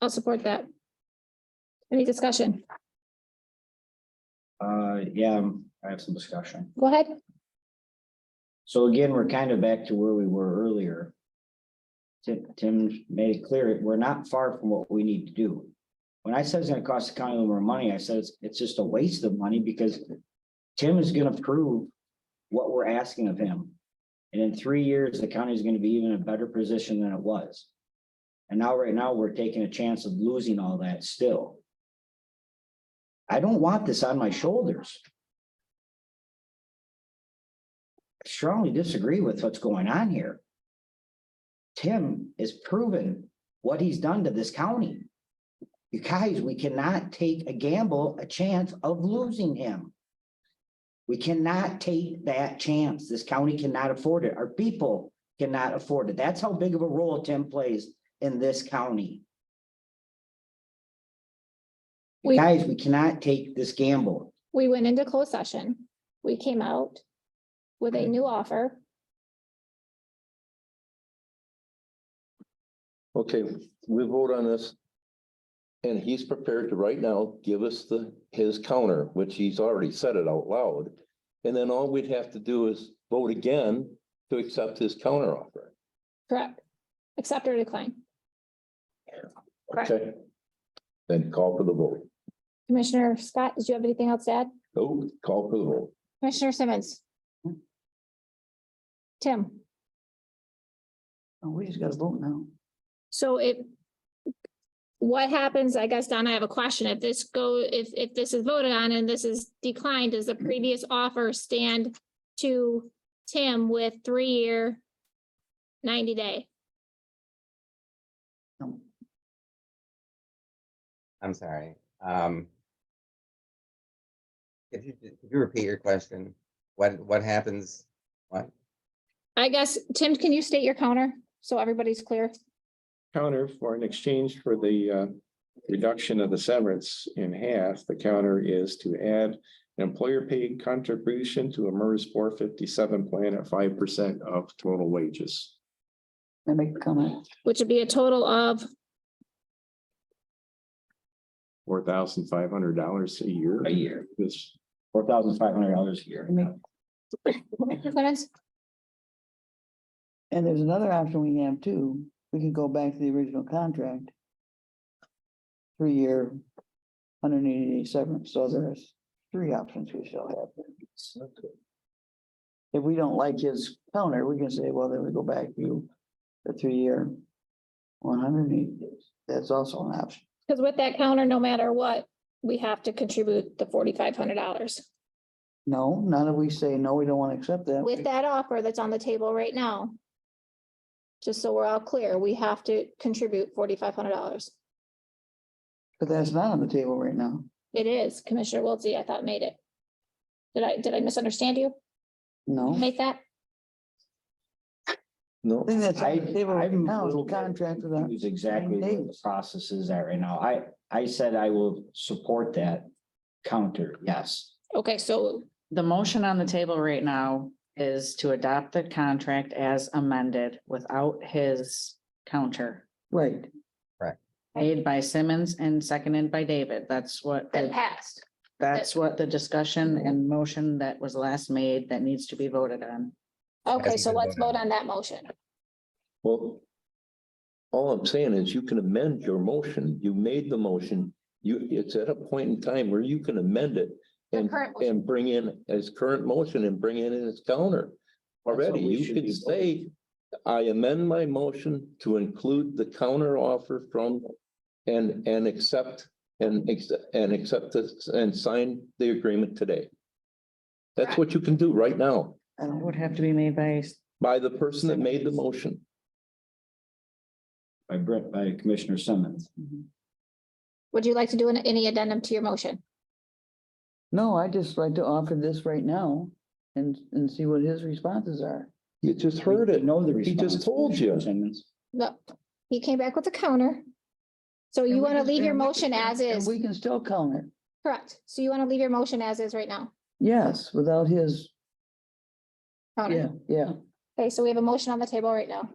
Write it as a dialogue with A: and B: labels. A: I'll support that. Any discussion?
B: Uh, yeah, um, I have some discussion.
A: Go ahead.
B: So again, we're kind of back to where we were earlier. Tim, Tim made it clear, we're not far from what we need to do. When I said it's gonna cost the county a little more money, I said it's, it's just a waste of money because Tim is gonna prove what we're asking of him. And in three years, the county is gonna be even in a better position than it was. And now, right now, we're taking a chance of losing all that still. I don't want this on my shoulders. strongly disagree with what's going on here. Tim is proven what he's done to this county. You guys, we cannot take a gamble, a chance of losing him. We cannot take that chance. This county cannot afford it. Our people cannot afford it. That's how big of a role Tim plays in this county.
A: We-
B: Guys, we cannot take this gamble.
A: We went into closed session. We came out with a new offer.
C: Okay, we vote on this. And he's prepared to right now give us the, his counter, which he's already said it out loud. And then all we'd have to do is vote again to accept his counter offer.
A: Correct. Accept or decline. Correct.
C: Okay? Then call for the vote.
A: Commissioner Scott, did you have anything else to add?
C: Oh, call for the vote.
A: Commissioner Simmons? Tim?
D: Oh, we just gotta vote now.
A: So if what happens, I guess, Donna, I have a question. If this go, if, if this is voted on and this is declined, does the previous offer stand to Tim with three-year ninety day?
D: No.
E: I'm sorry, um. If you, if you repeat your question, what, what happens? What,
A: I guess, Tim, can you state your counter so everybody's clear?
F: counter for in exchange for the uh, reduction of the severance in half, the counter is to add an employer paid contribution to a MERS four fifty-seven plan at five percent of total wages.
D: I make a comment.
A: Which would be a total of,
F: Four thousand five hundred dollars a year.
B: A year.
F: This,
B: Four thousand five hundred dollars a year.
D: I make-
A: Commissioner Clemens?
D: And there's another option we have too. We can go back to the original contract. Three-year, hundred and eighty day severance. So there's three options we shall have. If we don't like his counter, we can say, well, then we go back to the three-year, one hundred and eighty days. That's also an option.
A: Because with that counter, no matter what, we have to contribute the forty-five hundred dollars.
D: No, none of we say, no, we don't want to accept that.
A: With that offer that's on the table right now. Just so we're all clear, we have to contribute forty-five hundred dollars.
D: But that's not on the table right now.
A: It is Commissioner Wiltie, I thought made it. Did I, did I misunderstand you?
D: No.
A: Make that?
C: No,
D: I think that's
B: I,
D: on the table right
B: I'm
D: now
B: a
D: is
B: little
D: the
B: bit
D: contract with the-
B: confused exactly where the
D: days.
B: processes are right now. I, I said I will support that counter, yes.
A: Okay, so
G: The motion on the table right now is to adopt the contract as amended without his counter.
D: right.
G: Made by Simmons and seconded by David. That's what,
A: that
G: the-
A: passed.
G: that's what the discussion and motion that was last made that needs to be voted on.
A: Okay,
E: Hasn't
A: so
E: been
A: let's vote
E: voted
A: on that motion.
C: well. All I'm saying is you can amend your motion. You made the motion. You, it's at a point in time where you can amend it.
A: The
C: And,
A: current motion.
C: and bring in his current motion and bring in his counter.
B: That's what
C: Already,
B: we
C: you
B: should
C: can
B: be
C: say, I amend my motion to include the counter offer from and, and accept, and, ex- and accept this and sign the agreement today. That's what you can do right now
D: I don't-
G: Would
A: Um,
G: have to be made by,
C: by the person that made the motion.
B: By Brett, by Commissioner Simmons.
A: Would you like to do an- any addendum to your motion?
D: No, I just like to offer this right now and, and see what his responses are.
C: You just heard
B: We
C: it.
B: Know the
C: He
B: response.
C: just told you.
B: Commissioner Simmons.
A: No, he came back with a counter. So
D: And
A: you
D: we
A: want to
D: can-
A: leave your
D: and we-
A: motion as
D: and
A: is,
D: We can still counter,
A: correct? So you want to leave your motion as is right now?
D: yes, without his,
A: counter?
D: yeah, yeah.
A: Okay, so we have a motion on the table right now.